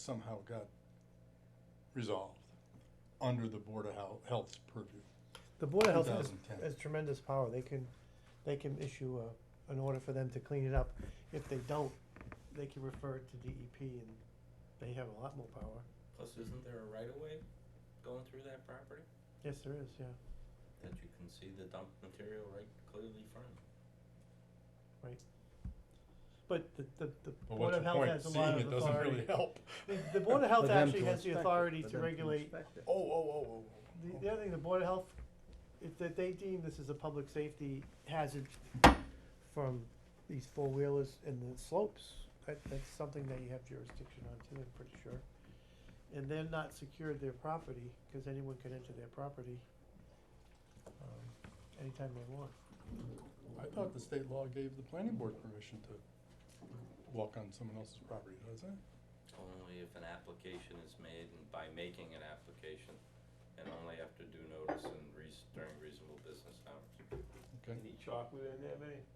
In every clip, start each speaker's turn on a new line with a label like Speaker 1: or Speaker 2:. Speaker 1: somehow got resolved under the Board of Hel- Health's purview.
Speaker 2: The Board of Health has,
Speaker 1: 2010.
Speaker 2: has tremendous power, they can, they can issue a, an order for them to clean it up. If they don't, they can refer it to DEP and they have a lot more power.
Speaker 3: Plus, isn't there a right of way going through that property
Speaker 2: Yes, there is, yeah,
Speaker 3: that you can see the dump material right clearly from?
Speaker 2: but the, the, the
Speaker 1: But
Speaker 2: Board
Speaker 1: what's
Speaker 2: of
Speaker 1: your
Speaker 2: Health
Speaker 1: point?
Speaker 2: has a
Speaker 1: Seeing
Speaker 2: lot of
Speaker 1: it doesn't
Speaker 2: authority.
Speaker 1: really help.
Speaker 2: The, the Board of Health
Speaker 4: For them
Speaker 2: actually
Speaker 4: to
Speaker 2: has the
Speaker 4: inspect it,
Speaker 2: authority
Speaker 4: for
Speaker 2: to
Speaker 4: them
Speaker 2: regulate,
Speaker 4: inspect it.
Speaker 1: Oh, oh, oh,
Speaker 2: the,
Speaker 1: oh.
Speaker 2: the other thing, the Board of Health, if that they deem this is a public safety hazard from these four-wheelers and the slopes, that, that's something that you have jurisdiction on too, I'm pretty sure. And they're not secured their property, cause anyone can enter their property, um, anytime they want.
Speaker 1: I thought the state law gave the planning board permission to walk on someone else's property, doesn't it?
Speaker 3: Only if an application is made, and by making an application, and only after due notice and reas- during reasonable business hours.
Speaker 1: Okay.
Speaker 2: chocolate in there, mate?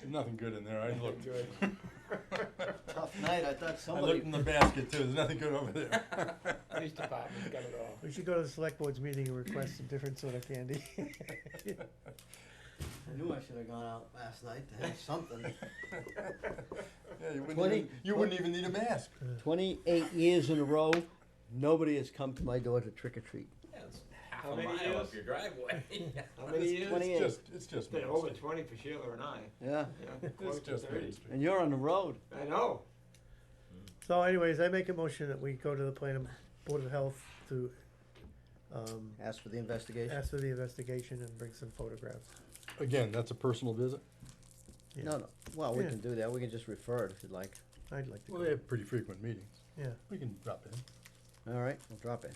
Speaker 1: There's nothing good in there, I looked.
Speaker 4: Tough night, I thought
Speaker 1: I
Speaker 4: somebody.
Speaker 1: looked in the basket too, there's nothing good over there.
Speaker 5: Police department's got it all.
Speaker 2: We should go to the select board's meeting and request a different sort of candy.
Speaker 4: I knew I should have gone out last night to have something.
Speaker 1: Yeah, you wouldn't
Speaker 4: Twenty-
Speaker 1: even, you wouldn't even need a mask.
Speaker 4: Twenty-eight years in a row, nobody has come to my door to trick or treat.
Speaker 3: Yeah, it's half
Speaker 5: How
Speaker 3: a
Speaker 5: many
Speaker 3: mile up
Speaker 5: years?
Speaker 3: your driveway.
Speaker 5: How many
Speaker 1: It's-
Speaker 5: years?
Speaker 1: It's
Speaker 4: 28.
Speaker 1: just, it's just
Speaker 5: They're
Speaker 1: mask.
Speaker 5: over twenty for Sheila and I.
Speaker 4: Yeah,
Speaker 5: Yeah,
Speaker 1: It's
Speaker 5: close to
Speaker 1: just Main
Speaker 5: thirty.
Speaker 1: Street.
Speaker 4: and you're on the road.
Speaker 5: I know.
Speaker 2: So anyways, I make a motion that we go to the planning board of health to, um,
Speaker 4: Ask for the investigation.
Speaker 2: ask for the investigation and bring some photographs.
Speaker 1: Again, that's a personal visit.
Speaker 2: Yeah.
Speaker 4: No, no, well, we
Speaker 2: Yeah.
Speaker 4: can do that. We can just refer it if you'd like.
Speaker 2: I'd like to
Speaker 1: Well,
Speaker 2: go,
Speaker 1: they have pretty frequent meetings.
Speaker 2: yeah.
Speaker 1: We can drop in.
Speaker 4: All right, we'll drop it.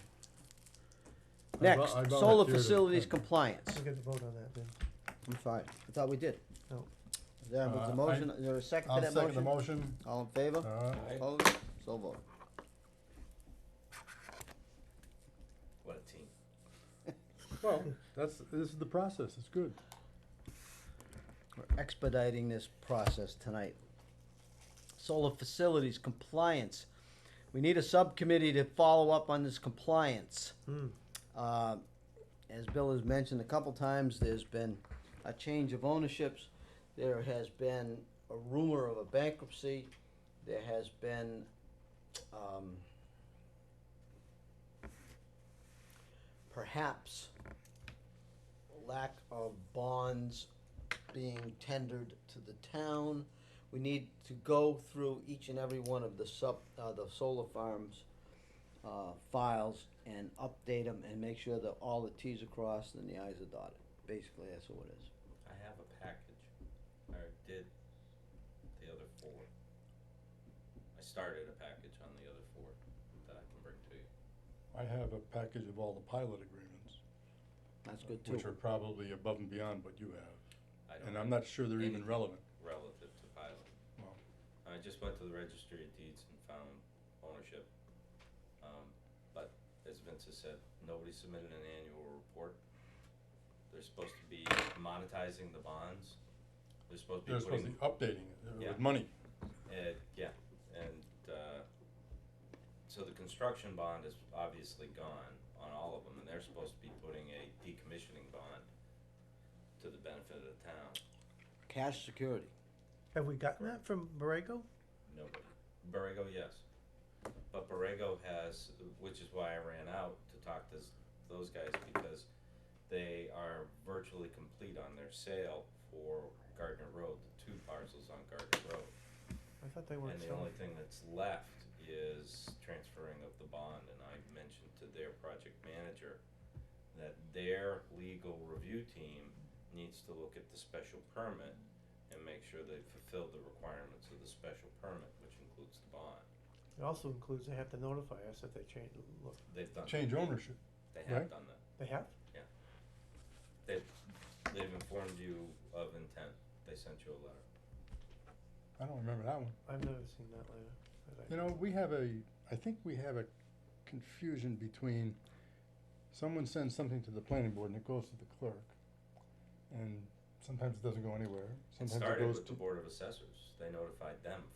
Speaker 1: I vol-
Speaker 4: Next,
Speaker 1: I
Speaker 4: solar
Speaker 1: volunteer to
Speaker 4: facilities
Speaker 1: attend.
Speaker 4: compliance.
Speaker 2: We'll get the vote on that then.
Speaker 4: I'm fine. I thought we did.
Speaker 2: No.
Speaker 4: There was
Speaker 1: Uh, I-
Speaker 4: a motion. Is there a second to
Speaker 1: I'll
Speaker 4: that
Speaker 1: second the
Speaker 4: motion?
Speaker 1: motion.
Speaker 4: All in favor?
Speaker 1: Uh,
Speaker 3: Alright,
Speaker 4: Opposed? So vote.
Speaker 3: What a team.
Speaker 1: Well, that's, this is the process, it's good.
Speaker 4: We're expediting this process tonight. Solar facilities compliance. We need a subcommittee to follow up on this compliance.
Speaker 2: Hmm.
Speaker 4: Uh, As Bill has mentioned a couple times, there's been a change of ownerships. There has been a rumor of a bankruptcy. There has been, um, perhaps lack of bonds being tendered to the town. We need to go through each and every one of the sub, uh, the solar farms, uh, files and update them and make sure that all the Ts are crossed and the Is are dotted. Basically, that's what it is.
Speaker 3: I have a package. I did the other four. I started a package on the other four that I can bring to you.
Speaker 1: I have a package of all the pilot agreements,
Speaker 4: That's good
Speaker 1: which are
Speaker 4: too.
Speaker 1: probably above and beyond what you have,
Speaker 3: I
Speaker 1: and
Speaker 3: don't have
Speaker 1: I'm not sure they're even
Speaker 3: Anything.
Speaker 1: relevant.
Speaker 3: relative to pilot.
Speaker 1: Wow.
Speaker 3: I just went to the registry of deeds and found ownership. Um, but as Vince has said, nobody submitted an annual report. They're supposed to be monetizing the bonds. They're supposed to
Speaker 1: They're
Speaker 3: be
Speaker 1: supposed to
Speaker 3: putting,
Speaker 1: be updating it uh,
Speaker 3: Yeah.
Speaker 1: with money.
Speaker 3: uh, yeah, and, uh, so the construction bond is obviously gone on all of them, and they're supposed to be putting a decommissioning bond to the benefit of the town.
Speaker 4: Cash security.
Speaker 2: Have we gotten that from Borrego?
Speaker 3: Nobody. Borrego, yes. But Borrego has, which is why I ran out to talk to s- those guys because they are virtually complete on their sale for Gardner Road, the two parcels on Gardner Road.
Speaker 2: I thought they were
Speaker 3: And the
Speaker 2: selling.
Speaker 3: only thing that's left is transferring of the bond, and I mentioned to their project manager that their legal review team needs to look at the special permit and make sure they fulfill the requirements of the special permit, which includes the bond.
Speaker 2: It also includes, they have to notify us if they change, look,
Speaker 3: They've done,
Speaker 1: Change ownership.
Speaker 3: they have
Speaker 1: right.
Speaker 3: done that.
Speaker 2: they have?
Speaker 3: They've, they've informed you of intent. They sent you a letter.
Speaker 1: I don't remember that one.
Speaker 2: I've never seen that letter. that I-
Speaker 1: You know, we have a, I think we have a confusion between someone sends something to the planning board and it goes to the clerk, and sometimes it doesn't go anywhere.
Speaker 3: It
Speaker 1: Sometimes it
Speaker 3: started
Speaker 1: goes
Speaker 3: with the
Speaker 1: to,
Speaker 3: Board of Assessors. They notified them